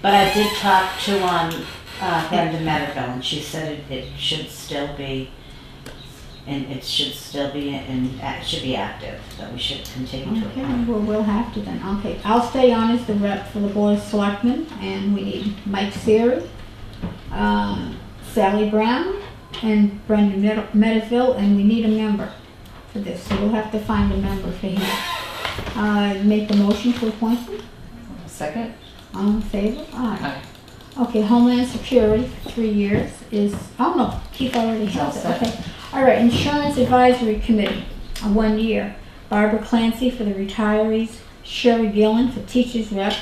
But I did talk to, um, uh, Brenda Medical, and she said it, it should still be, and it should still be, and it should be active, that we should continue to. Okay, well, we'll have to then, okay. I'll stay on as the rep for the Board of Selectmen, and we need Mike Siri, um, Sally Brown, and Brendan Medi- Medeville, and we need a member for this, so we'll have to find a member for him. Uh, make the motion to appoint him, Second? all in favor? Aye. Aye. Okay, Homeland Security, three years is, oh no, Keith already has it, All set. okay. All right, Insurance Advisory Committee, uh, one year. Barbara Clancy for the retirees, Sherry Gillen for teachers rep,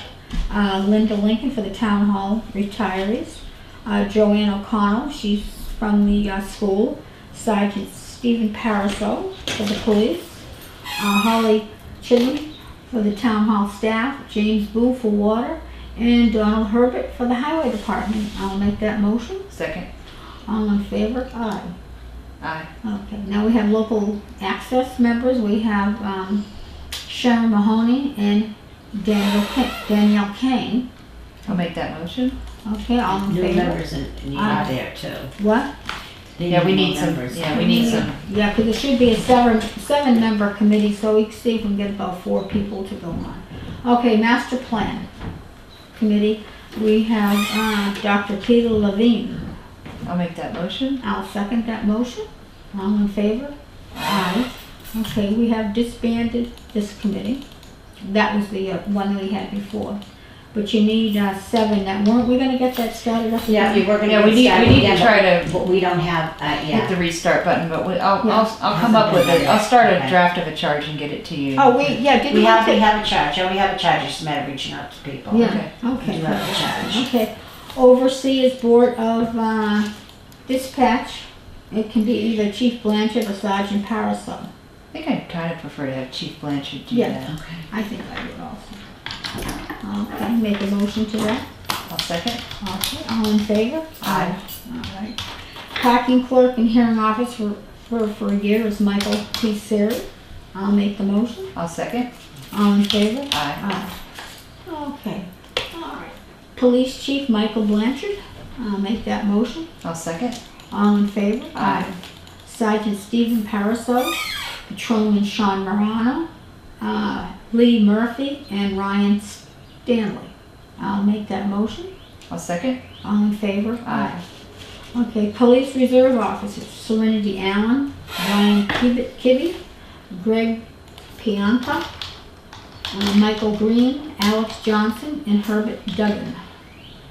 uh, Linda Lincoln for the town hall retirees, uh, Joanne O'Connell, she's from the uh, school, Sergeant Stephen Paraso for the police, uh, Holly Chidley for the town hall staff, James Boo for water, and Donald Herbert for the highway department. I'll make that motion. Second? All in favor? Aye. Aye. Okay, now we have local access members. We have um, Sharon Mahoney and Daniel Ca- Danielle Kane. I'll make that motion. Okay, all in New favor? members and you Aye. are there too. What? They Yeah, we more need some- members. yeah, we need some. Yeah, because it should be a seven, seven-member committee, so we can see if we can get about four people to go on. Okay, master plan committee. We have uh, Dr. Peter Levine. I'll make that motion. I'll second that motion. All in favor? Aye. Okay, we have disbanded this committee. That was the uh, one we had before. But you need uh, seven that weren't, we gonna get that started up Yeah, again? we were gonna Yeah, we get need- we started need to again, try but- to- But we don't have, uh, Hit yeah, the restart button, but we, I'll, Yeah. I'll, I'll come up with it. I'll start a draft of a charge and get it to you. Oh, we, yeah, didn't we? we have, we take- have a charge, and we have a charge, it's a matter of reaching out to people. Yeah, We do okay. have a charge. Okay. Overseers Board of uh, Dispatch. It can be either Chief Blanchard or Sergeant Parasol. I think I kind of prefer to have Chief Blanchard do Yeah. that. I think I would also. Okay, make a motion to that. I'll second. Okay, all in favor? Aye. All right. Parking clerk and hearing office for, for, for a year is Michael P. Siri. I'll make the motion. I'll second. All in favor? Aye. Aye. Okay, all right. Police chief Michael Blanchard, I'll make that motion. I'll second. All in favor? Aye. Sergeant Stephen Paraso, Patrolman Sean Morano, uh, Lee Murphy, and Ryan Stanley. I'll make that motion. I'll second. All in favor? Aye. Okay, Police Reserve Officers, Serenity Allen, Ryan Kib- Kibbe, Greg Pianta, uh, Michael Green, Alex Johnson, and Herbert Duggan.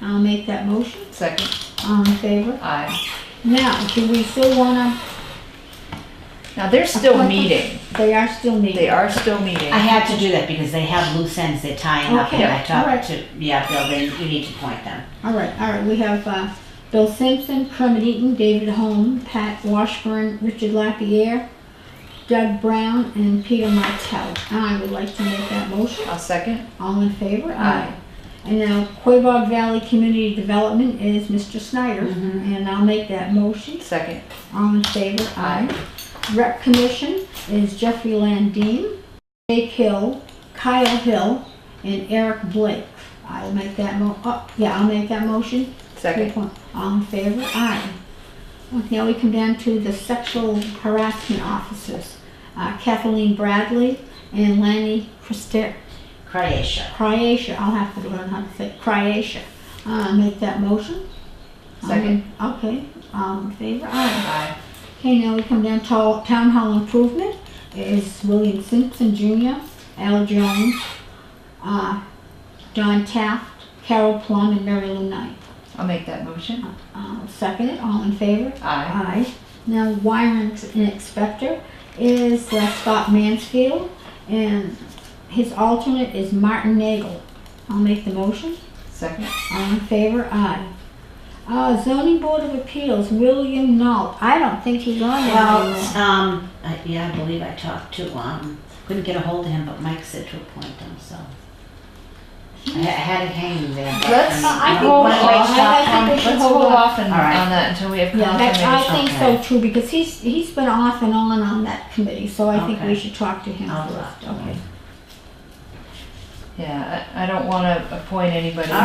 I'll make that motion. Second. All in favor? Aye. Now, do we still wanna, Now they're still meeting. they are still needed? They are still meeting. I had to do that because they have loose ends, they're tying up, and Okay, I alright. talked to, yeah, Bill, then you need to point them. All right, all right, we have uh, Bill Simpson, Kermit Eaton, David Holm, Pat Washburn, Richard Lapierre, Doug Brown, and Peter Martell. I would like to make that motion. I'll second. All in favor? Aye. And now Quabog Valley Community Development is Mr. Snyder, and I'll make that motion. Second. All in favor? Aye. Rep Commission is Jeffrey Landine, Jake Hill, Kyle Hill, and Eric Blake. I'll make that mo, oh, yeah, I'll make that motion. Three Second. point. All in favor? Aye. Okay, Now we come down to the sexual harassment officers, Uh, Kathleen Bradley and Lanny Christi- Croatia, Croatia. I'll have to learn how to say Croatia. Uh, Make that motion. Um, Second. Okay, all in favor? Aye. Aye. Okay, now we come down to all- Town Hall Improvement. Is William Simpson Jr., Al Jones, uh, Don Taft, Carol Plum, and Mary Lou Knight. I'll make that motion. I'll second it, all in favor? Aye. Aye. Now, warrant and inspector is uh, Scott Mansfield, and his alternate is Martin Nagel. I'll make the motion, Second. all in favor? Aye. Uh, zoning board of appeals, William Knoll, I don't think he's on there anymore. well, um, I- yeah, I believe I talked to, um, couldn't get a hold of him, but Mike said to appoint him, so. I ha- I had it hanging there, but. Let's um, I think- Uh, hold why off. don't we stop I on- think we Let's should hold hold off and- All right. on that until we have Yeah, that's, I confirmation. think so too, because he's, he's been off and on on that committee, so I think we Okay. should talk to him I'll first, talk to him. okay? Yeah, I, I don't wanna appoint anybody. All